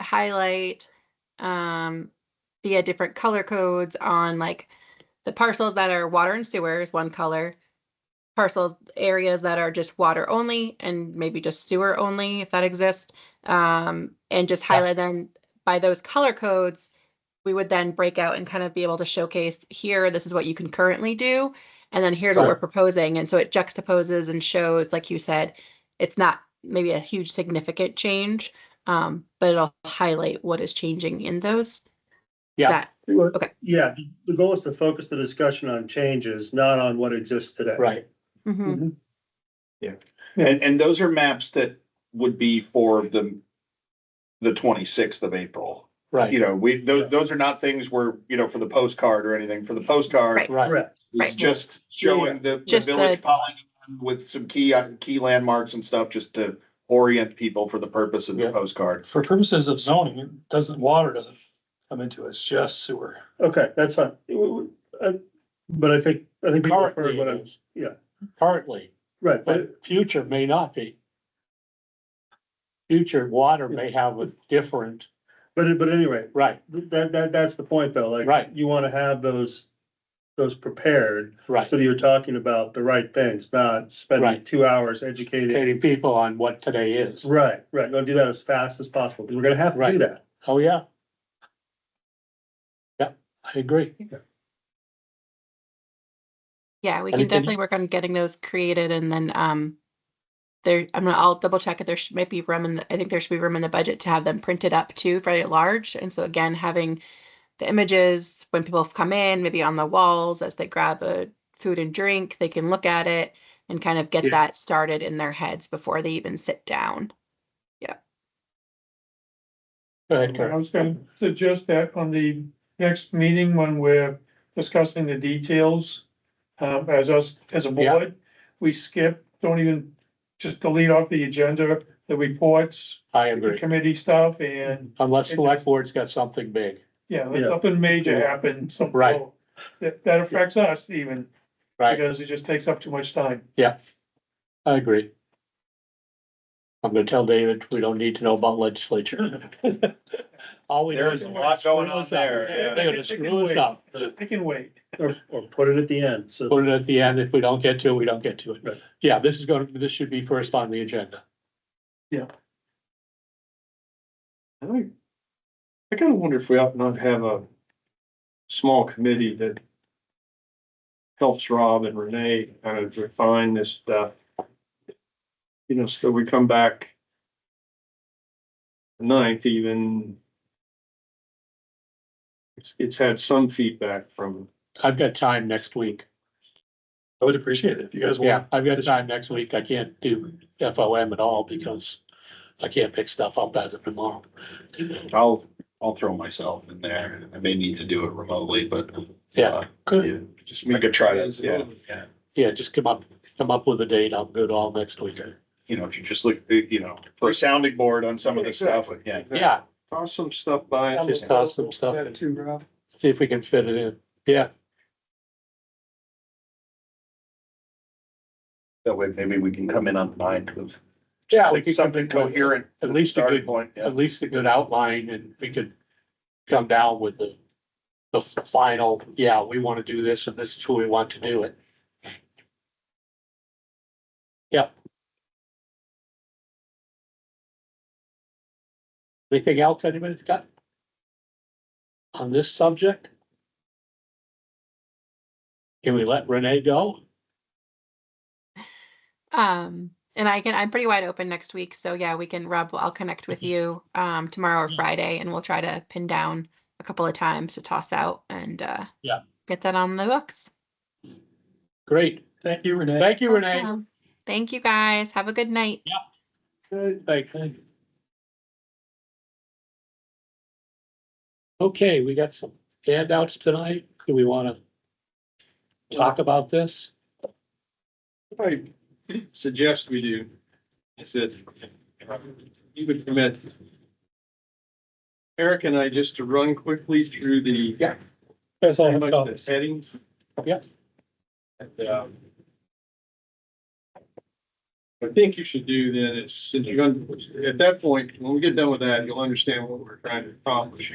highlight um via different color codes on like the parcels that are water and sewer is one color. Parcels, areas that are just water only and maybe just sewer only, if that exists. Um, and just Yeah. highlight then by those color codes, we would then break out and kind of be able to showcase here, this is what you can currently do. And then here's what we're Right. proposing. And so it juxtaposes and shows, like you said, it's not maybe a huge significant change. Um, but it'll highlight what is changing in those. Yeah. That, Well, Okay. Yeah, the, the goal is to focus the discussion on changes, not on what exists today. Right, mhm. Mm-hmm. And, and those are maps that would be for the, the twenty-sixth of April. You right, know, we, those, those are not things where, you know, for the postcard or anything. For the postcard, Right. right, Correct. it's Right. just showing the, the Just the- village polygon with some key, uh, key landmarks and stuff, just to orient people for the purpose of Yeah. the postcard. for purposes of zoning, it doesn't, water doesn't come into it, it's just sewer. Okay, that's fine. It w- w- uh, But I think, I think people have heard Currently, what it I'm, is. yeah. Currently, right, but but future may not be. Future water may have a different, But, but anyway, right, th- that, that, that's the point though, like. Right. You wanna have those, those prepared, right, so that you're talking about the right things, not spending Right. two hours educating. educating people on what today is. Right, right, go do that as fast as possible, because we're gonna have to do Right. that. Oh, yeah. Yeah, I agree. Yeah, we And can it can- definitely work on getting those created and then, um, there, I'm gonna, I'll double check if there should, might be room in, the- I think there should be room in the budget to have them printed up too, very large. And so again, having the images, when people come in, maybe on the walls as they grab a food and drink, they can look at it and kind of get Yeah. that started in their heads before they even sit down. Go ahead, I Karen. was gonna suggest that on the next meeting, when we're discussing the details, um, as us, as a Yeah. board, we skip, don't even, just delete off the agenda, the reports, I the agree, committee stuff, and, unless select board's got something big, yeah, let Yeah. nothing major happen, something. Right. That, that affects us even, right, because it just takes up too much time. I agree. I'm gonna tell David, we don't need to know about legislature. All we. know There's is- a lot going on there, They're yeah. gonna screw us up. I can wait. Or, or put it at the end, so. Put it at the end. If we don't get to it, we don't get to it. Right. Yeah, this is going, to this should be first on the agenda. I, I kinda wonder if we ought not have a small committee that helps Rob and Renee kind of refine this stuff. You know, so we come back the ninth even. It's, it's had some feedback from, I've got time next week. I would appreciate it if you guys Yeah, I've got time next week. I can't do FOM at all because I can't pick stuff up as of tomorrow. I'll, I'll throw myself in there. I may need to do it remotely, but. Uh, Yeah, good. yeah, Just we could try to, yeah, yeah. Yeah, just come up, come up with a date. I'm good all next week. You know, if you just look, you know, for a sounding board on some of the stuff, yeah. Yeah, Toss some stuff by. I'll just toss some stuff. Yeah, Too, Rob. see if we can fit it in. Yeah, That way maybe we can come in on the ninth with. Yeah, we could come Something in with- coherent. at least a Starting good, point, yeah. at least a good outline and we could come down with the, the final, yeah, we want to do this and this is who we want to do it. Yep. Anything else anybody's got? On this subject? Can we let Renee go? Um, and I can, I'm pretty wide open next week. So yeah, we can, Rob, I'll connect Mm-hmm. with you, um, tomorrow or Friday and we'll try to pin down a couple of times to toss out and, uh, Yeah. get that on the books. Great. Thank you, Renee. Thank you, Renee. Awesome. Thank you guys. Have a good night. Good, thank you. Okay, we got some handouts tonight. Do we wanna talk about this? I suggest we do is that you would permit Eric and I just to run quickly through the Yeah. That's all I've got. the headings. Yeah. And, um, I think you should do then is, since you're gonna, at that point, when we get done with that, you'll understand what we're trying to accomplish